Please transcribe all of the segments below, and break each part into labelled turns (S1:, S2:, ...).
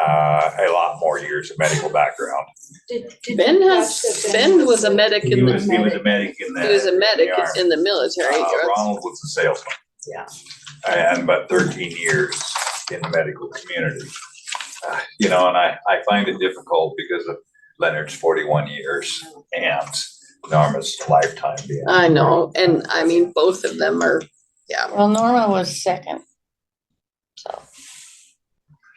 S1: uh, a lot more years of medical background.
S2: Did- did
S3: Ben
S2: you
S3: has,
S2: watch the
S3: Ben was a medic
S1: He
S3: in the,
S1: was, he was a medic in the.
S3: he was a medic
S1: in the army.
S3: in the military.
S1: Uh, Ronald was a salesman.
S3: Yeah.
S1: I had about thirteen years in the medical community. Uh, You know, and I, I find it difficult because of Leonard's forty-one years and Norma's lifetime being.
S3: I know, and I mean, both of them are, yeah.
S4: Well, Norma was second.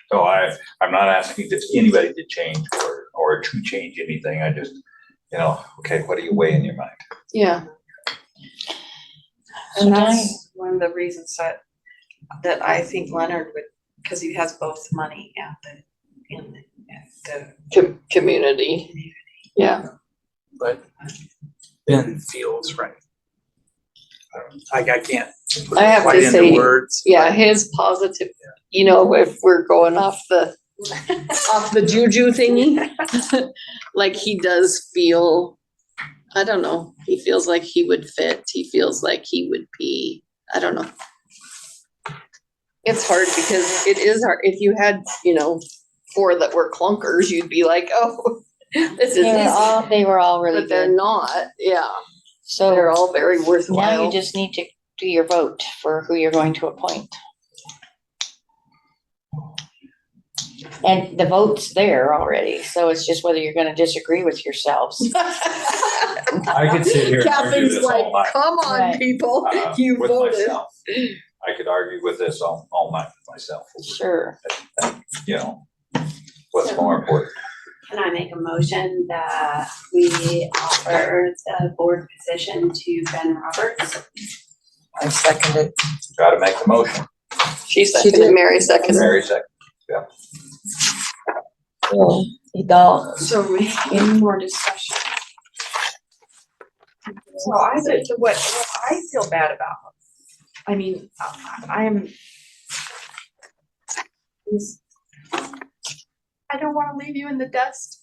S1: So I, I'm not asking just anybody to change or, or to change anything. I just, you know, okay, what do you weigh in your mind?
S3: Yeah.
S4: And
S5: And
S4: I,
S5: that's one of the reasons that, that I think Leonard would, because he has both money and the, and the- and the.
S3: Com- community. Yeah,
S6: but Ben feels right. I don't- I, I can't. put
S3: I
S6: it
S3: have to
S6: quite into
S3: say,
S6: Words.
S3: yeah, his positive, you know, if we're going off the, off the juju thingy. Like he does feel, I don't know, he feels like he would fit, he feels like he would be, I don't know. It's hard because it is hard, if you had, you know, four that were clunkers, you'd be like, oh, this is
S4: they were
S3: easy.
S4: all, they were all really
S3: But they're
S4: good.
S3: not, yeah, they're
S4: So
S3: all very
S4: now you
S3: worthwhile.
S4: just need to do your vote for who you're going to appoint. And the vote's there already, so it's just whether you're gonna disagree with yourselves.
S1: I could sit here
S3: Catherine's like, come on,
S4: Right.
S3: people,
S1: uh,
S3: you
S1: with
S3: voted.
S1: myself. I could argue with this all, all night with myself,
S4: Sure.
S1: you know, what's more important.
S7: Can I make a motion that we offer the board position to Ben Roberts?
S8: I seconded.
S1: Gotta make the motion.
S3: She seconded, Mary seconded.
S1: Mary second.
S5: So we need more discussion. So I, would- what, what I feel bad about, I mean, I- I'm. is- I don't wanna leave you in the dust,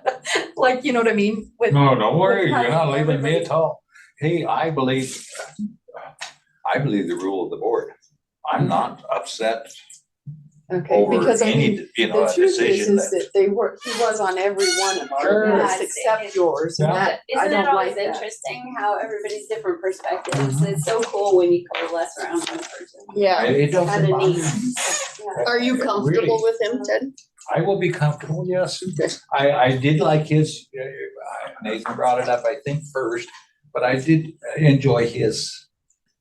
S5: like, you know what I mean, with.
S1: No, don't worry,
S5: With
S1: you're not
S5: having
S1: leaving me
S5: everybody-
S1: at all. Hey, I believe, I believe the rule of the board. I'm not upset
S3: Okay,
S1: over
S3: because I mean,
S1: any, you know,
S3: the
S1: a
S3: truth is,
S1: decision
S3: is
S1: that.
S3: that they were, he was on every one of
S1: Sure.
S3: our lists
S7: Yeah,
S3: except
S7: it's-
S3: yours, and
S1: Yeah.
S3: that, I
S7: Isn't it
S3: don't like
S7: always
S3: that.
S7: interesting how everybody's different perspectives?
S4: Mm-hmm.
S7: It's so cool when you coalesce around one person.
S3: Yeah,
S1: It doesn't
S7: Kinda
S1: bother
S7: neat.
S1: me.
S3: are you
S1: Really.
S3: comfortable with him, Ted?
S1: I will be comfortable, yes.
S3: Okay.
S1: I, I did like his, uh, Nathan brought it up, I think, first, but I did enjoy his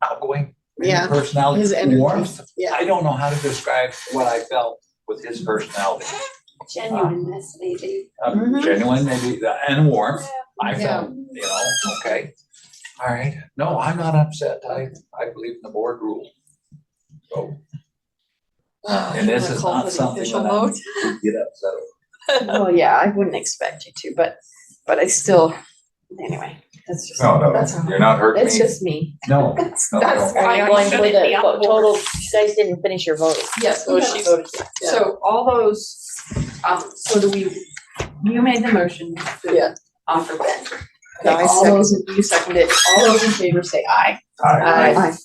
S1: outgoing
S3: Yeah, his
S1: personality,
S3: energy.
S1: warmth.
S3: yeah,
S1: I don't know how to describe what I felt with his personality.
S7: Genuineness, maybe.
S1: Um,
S3: Mhm.
S1: Genuine maybe, uh, and warmth. I
S3: Yeah.
S1: felt, you know, okay. All right. No, I'm not upset. I, I believe in the board rule. So,
S3: Oh,
S1: and this is not something that I get upset over.
S5: Well, yeah, I wouldn't expect you to, but, but I still, anyway, that's just,
S1: No,
S5: That's all.
S1: no, you're not hurting
S5: that's
S1: me.
S5: just me.
S1: No, no, no.
S5: That's why I
S4: Going
S5: shouldn't
S4: with
S5: be
S4: a
S5: on the board.
S4: total, you guys didn't finish your vote.
S5: Yes,
S3: so
S5: well,
S3: she
S5: she's,
S3: voted, yeah.
S5: so all those, um, so do we, you made the motion. to
S3: Yeah.
S5: Offer Ben.
S8: No, I
S5: Okay, All those, in- you seconded, it. all those in favor say aye.
S1: All right.
S5: Aye.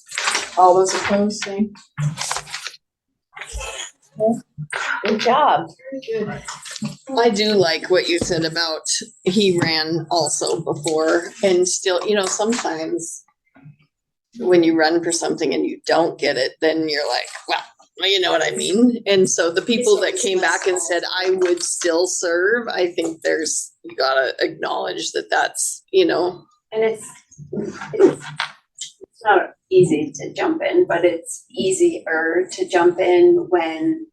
S5: All those opposed, say.
S4: Good job.
S3: I do like what you said about he ran also before and still, you know, sometimes when you run for something and you don't get it, then you're like, well, you know what I mean? And so the people that came back and said, I would still serve, I think there's, you gotta acknowledge that that's, you know,
S7: And it's, it's it's not easy to jump in, but it's easier to jump in when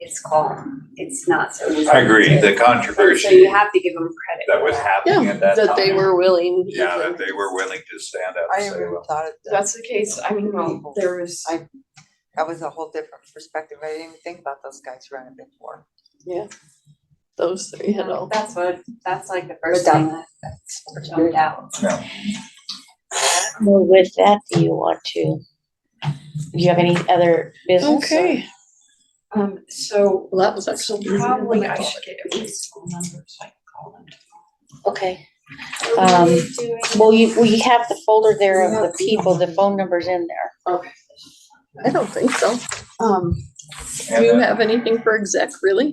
S7: it's calm. It's not so easy.
S1: I agree, the
S7: to- And So you
S1: controversy
S7: have to give them credit.
S1: that
S7: for
S1: was happening at that time.
S3: that they were willing.
S1: Yeah, that they were willing to stand up
S8: I
S1: and say,
S8: never
S1: well,
S8: thought of
S5: If
S8: that.
S5: that's the case, I mean, well, there was.
S8: I- That was a whole different perspective. I didn't even think about those guys running before.
S3: Those three had all.
S7: That's what, that's like the first
S8: But that-
S7: thing that jumped out.
S4: Well, with that, do you want to, do you have any other business? or-
S5: Um, so
S3: Well, that was
S5: so
S3: actually.
S5: probably I should get at least school numbers, I can call them.
S4: Okay. Um, well, you, we have the folder there of the people, the phone numbers in there.
S3: I don't think so. Um, do
S1: and
S3: you
S1: then-
S3: have anything for exec, really?